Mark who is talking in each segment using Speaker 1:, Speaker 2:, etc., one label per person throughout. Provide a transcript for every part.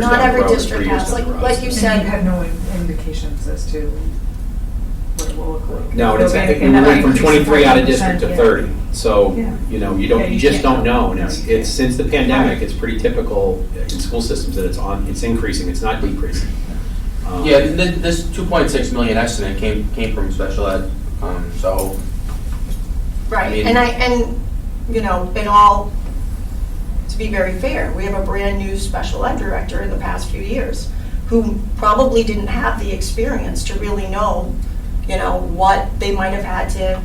Speaker 1: Not
Speaker 2: Yeah,
Speaker 1: every
Speaker 2: probably
Speaker 1: district
Speaker 2: three years
Speaker 1: has,
Speaker 2: down
Speaker 1: like,
Speaker 2: the road.
Speaker 1: like you
Speaker 3: And
Speaker 1: said.
Speaker 3: you have no indications as to what it will look like.
Speaker 2: No, and it's, I think we
Speaker 3: Organic
Speaker 2: went from
Speaker 3: increase of
Speaker 2: twenty-three out of
Speaker 3: 14%,
Speaker 2: district to
Speaker 3: yeah.
Speaker 2: thirty. So,
Speaker 3: Yeah.
Speaker 2: you know, you don't,
Speaker 3: Yeah,
Speaker 2: you
Speaker 3: you
Speaker 2: just don't
Speaker 3: can't
Speaker 2: know. And it's,
Speaker 3: know.
Speaker 2: it's, since the pandemic, it's pretty typical in school systems that it's on, it's increasing, it's not decreasing. Um,
Speaker 4: Yeah, th- th- this 2.6 million estimate came, came from special ed, um, so, I
Speaker 1: Right,
Speaker 4: mean-
Speaker 1: and I, and, you know, in all, to be very fair, we have a brand-new special ed director in the past few years who probably didn't have the experience to really know, you know, what they might have had to,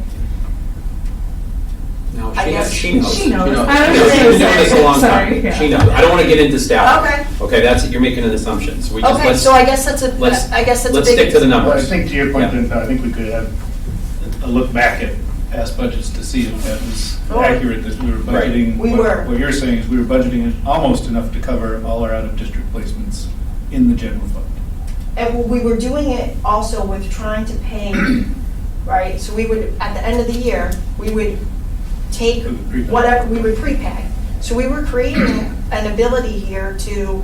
Speaker 2: No,
Speaker 1: I
Speaker 2: she knows,
Speaker 1: guess-
Speaker 2: she knows.
Speaker 3: She knows.
Speaker 4: She knows.
Speaker 3: I
Speaker 2: She
Speaker 3: was
Speaker 2: knows. She's
Speaker 3: gonna say,
Speaker 2: been doing this a long
Speaker 3: sorry,
Speaker 2: time.
Speaker 3: yeah.
Speaker 2: She knows. I don't want to get into staff.
Speaker 1: Okay.
Speaker 2: Okay, that's, you're making an assumption. So we just,
Speaker 1: okay,
Speaker 2: let's,
Speaker 1: so I guess that's a,
Speaker 2: let's-
Speaker 1: I guess that's a big.
Speaker 2: let's stick to the
Speaker 5: Well, I
Speaker 2: numbers.
Speaker 5: think to your point,
Speaker 2: Yeah.
Speaker 5: Vince, I think we could have a look back at past budgets to see if that was
Speaker 1: Oh.
Speaker 5: accurate, that we were
Speaker 2: Right.
Speaker 5: budgeting.
Speaker 1: We
Speaker 5: what-
Speaker 1: were.
Speaker 5: What you're saying is we were budgeting almost enough to cover all our out-of-district placements in the general fund.
Speaker 1: And we were doing it also with trying to pay, right? So we would, at the end of the year, we would take
Speaker 5: We would prepay.
Speaker 1: whatever, we would prepay. So we were creating an ability here to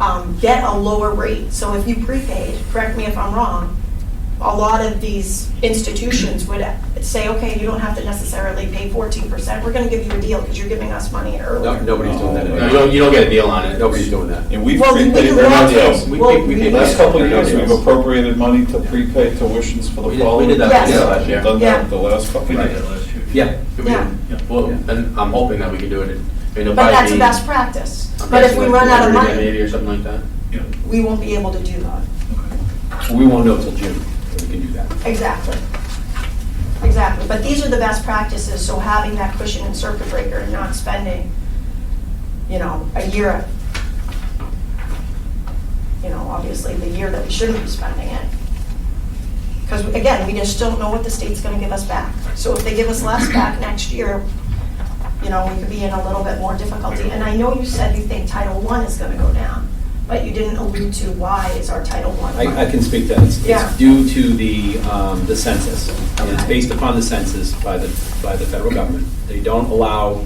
Speaker 1: um, get a lower rate. So if you prepaid, correct me if I'm wrong, a lot of these institutions would say, okay, you don't have to necessarily pay 14%. We're going to give you a deal because you're giving us money
Speaker 2: No,
Speaker 1: earlier.
Speaker 2: nobody's doing that.
Speaker 4: you
Speaker 2: anymore.
Speaker 4: don't, Oh, you don't get a deal on it.
Speaker 2: Nobody's doing that.
Speaker 6: And we've
Speaker 1: Well, we
Speaker 6: prepaid,
Speaker 1: can
Speaker 6: there are
Speaker 1: lock
Speaker 6: no
Speaker 1: in.
Speaker 6: deals.
Speaker 4: We-
Speaker 1: Well,
Speaker 4: we- we
Speaker 1: we
Speaker 4: did
Speaker 1: can-
Speaker 6: Last couple of years,
Speaker 2: Yeah.
Speaker 6: we've appropriated money to prepay tuitions for
Speaker 2: We did-
Speaker 6: the
Speaker 2: we
Speaker 6: following.
Speaker 2: did that
Speaker 1: last
Speaker 6: year.
Speaker 1: year.
Speaker 6: We've
Speaker 4: Yeah.
Speaker 6: Done
Speaker 1: Yeah.
Speaker 6: that the last couple of years.
Speaker 5: last year.
Speaker 2: Yeah.
Speaker 1: Yeah.
Speaker 4: Well, and I'm hoping that we can do it, in- I mean, it'll probably be.
Speaker 1: But that's best practice. But if we run out of money.
Speaker 4: Maybe or something like that.
Speaker 5: Yeah,
Speaker 1: we won't be able to do that.
Speaker 5: okay.
Speaker 2: We won't know till June that we can do that.
Speaker 1: Exactly. Exactly, but these are the best practices, so having that cushion and circuit breaker and not spending, you know, a year, you know, obviously the year that we shouldn't be spending it. Because again, we just don't know what the state's gonna give us back. So if they give us less back next year, you know, we could be in a little bit more difficulty. And I know you said you think Title I is gonna go down, but you didn't allude to why is our Title I.
Speaker 2: I, I can speak to that. It's-
Speaker 1: Yeah.
Speaker 2: It's due to the, um, the census. And it's
Speaker 1: Okay.
Speaker 2: based upon the census by the, by the federal government. They don't allow,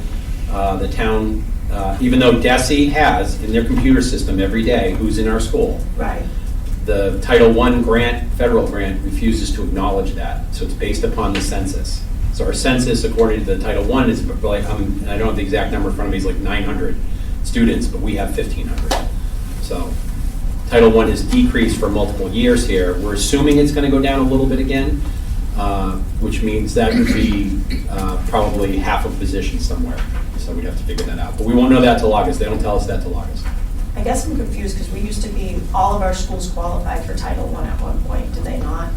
Speaker 2: uh, the town, uh, even though DESI has in their computer system every day who's in our school,
Speaker 1: Right.
Speaker 2: the Title I grant, federal grant, refuses to acknowledge that, so it's based upon the census. So our census, according to the Title I, is like, um, and I don't have the exact number in front of me, it's like 900 students, but we have 1,500. So Title I has decreased for multiple years here. We're assuming it's going to go down a little bit again, uh, which means that would be uh, probably half a position somewhere, so we'd have to figure that out. But we won't know that till August, they don't tell us that till August.
Speaker 1: I guess I'm confused because we used to be, all of our schools qualified for Title I at one point, did they not?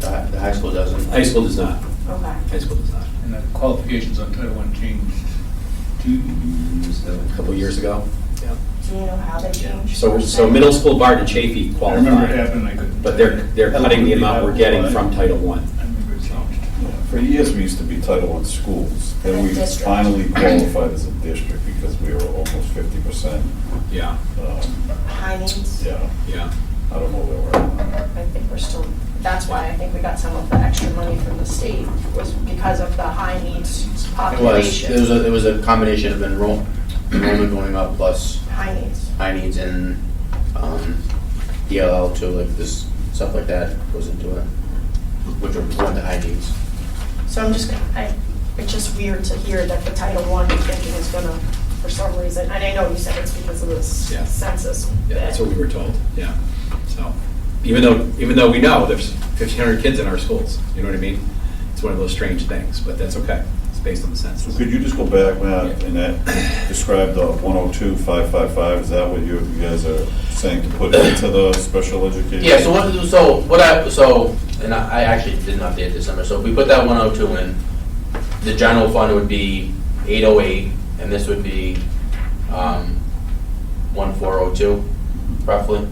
Speaker 4: The hi- the high school doesn't.
Speaker 2: High school does not,
Speaker 1: Okay.
Speaker 2: high school does not.
Speaker 5: And the qualifications on Title I changed two years ago.
Speaker 2: a couple years ago. Yeah.
Speaker 1: Do you know how they changed?
Speaker 2: So, so middle school Barton Chafee
Speaker 5: I remember it
Speaker 2: qualified,
Speaker 5: happened, I couldn't.
Speaker 2: but they're, they're cutting the amount we're getting from Title I.
Speaker 5: I remember it changed.
Speaker 6: For years, we used to be Title I schools,
Speaker 1: And
Speaker 6: then we
Speaker 1: district.
Speaker 6: finally qualified as a district because we were almost fifty percent. um,
Speaker 2: Yeah,
Speaker 1: High needs?
Speaker 6: Yeah,
Speaker 2: yeah.
Speaker 6: I don't know where we're at.
Speaker 1: I think we're still, that's why I think we got some of the extra money from the state, was because of the high needs
Speaker 4: It was, it was,
Speaker 1: population.
Speaker 4: a- it was a combination of enroll, enrollment going up plus
Speaker 1: High needs.
Speaker 4: high needs and, um, DLL too, like this, stuff like that goes into it, which are one of the high needs.
Speaker 1: So I'm just, I, it's just weird to hear that the Title I thinking is gonna, for some reason, and I know you said it's because of this
Speaker 2: Yeah.
Speaker 1: census.
Speaker 2: Yeah, that's what we were told, yeah. So, even though, even though we know there's fifteen hundred kids in our schools, you know what I mean? It's one of those strange things, but that's okay. It's based on the
Speaker 6: So
Speaker 2: census.
Speaker 6: could you just go back, Matt, and that, describe the one oh two, five five five, is that what you, you guys are saying to put into the special education?
Speaker 4: Yeah, so what, so what I, so, and I I actually didn't update this number, so if we put that one oh two in, the general fund would be eight oh eight, and this would be, um, one four oh two, roughly.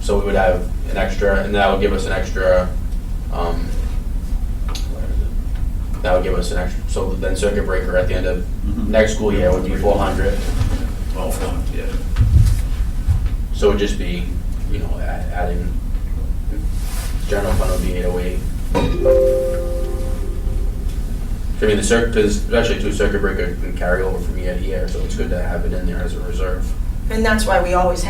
Speaker 4: So we would have an extra, and that would give us an extra, um, where is it? that would give us an extra, so then circuit breaker at the end of next school year would be four hundred.
Speaker 5: All fun, yeah.
Speaker 4: So it'd just be, you know, a- adding, general fund would be eight oh eight. I mean, the circ, because actually two circuit breaker can carry over from year to year, so it's good to have it in there as a reserve.
Speaker 1: And that's why we always